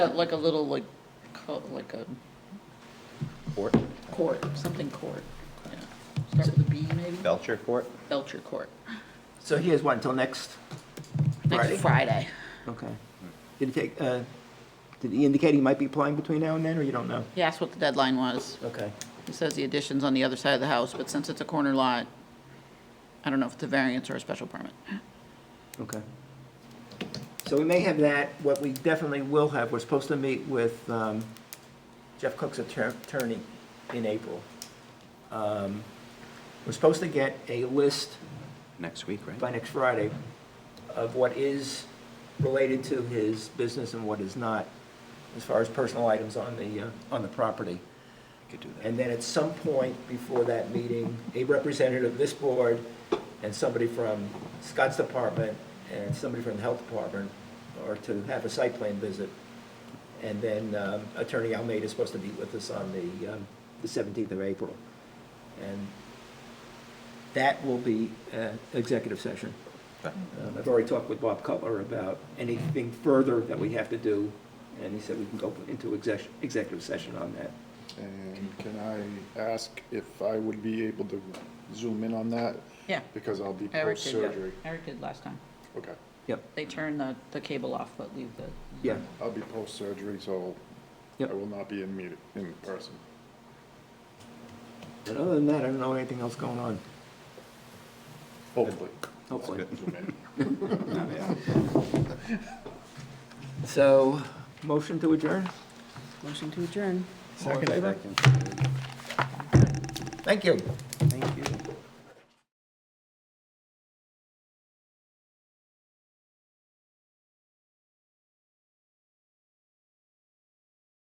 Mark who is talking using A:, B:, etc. A: Like a little, like, co- like a
B: Court,
A: court, something court, yeah. Start with a B, maybe?
B: Belcher Court?
A: Belcher Court,
C: So he has what, until next?
A: next Friday.
C: Friday. Okay. Did he take, uh, did he indicate he might be applying between now and then, or you don't know?
A: He asked what the deadline was.
C: Okay.
A: He says the addition's on the other side of the house, but since it's a corner lot, I don't know if it's a variance or a special permit.
C: Okay. So we may have that. What we definitely will have, we're supposed to meet with um, Jeff Cook's atter- attorney in April. Um, We're supposed to get a list
B: Next week,
C: by
B: right?
C: next Friday of what is related to his business and what is not, as far as personal items on the, uh, on the property.
B: Could do that.
C: And then at some point before that meeting, a representative of this board and somebody from Scott's department and somebody from the health department are to have a site plan visit. And then um, Attorney Almeida is supposed to meet with us on the, um, the 17th of April. And that will be uh, executive session.
B: Okay.
C: Um, I've already talked with Bob Cutler about anything further that we have to do, and he said we can go into exec- executive session on that.
D: And can I ask if I would be able to zoom in on that?
A: Yeah.
D: Because I'll be
A: Eric did,
D: post-surgery.
A: Eric did last time.
D: Okay,
C: Yep,
A: They turn the, the cable off, but leave the.
C: yeah.
D: I'll be post-surgery, so I
C: Yep.
D: will not be in meeting, in person.
C: But other than that, I don't know anything else going on,
D: Hopefully.
C: hopefully.
D: Zoom in.
C: So, motion to adjourn?
E: Motion to adjourn.
C: All in favor? Thank you.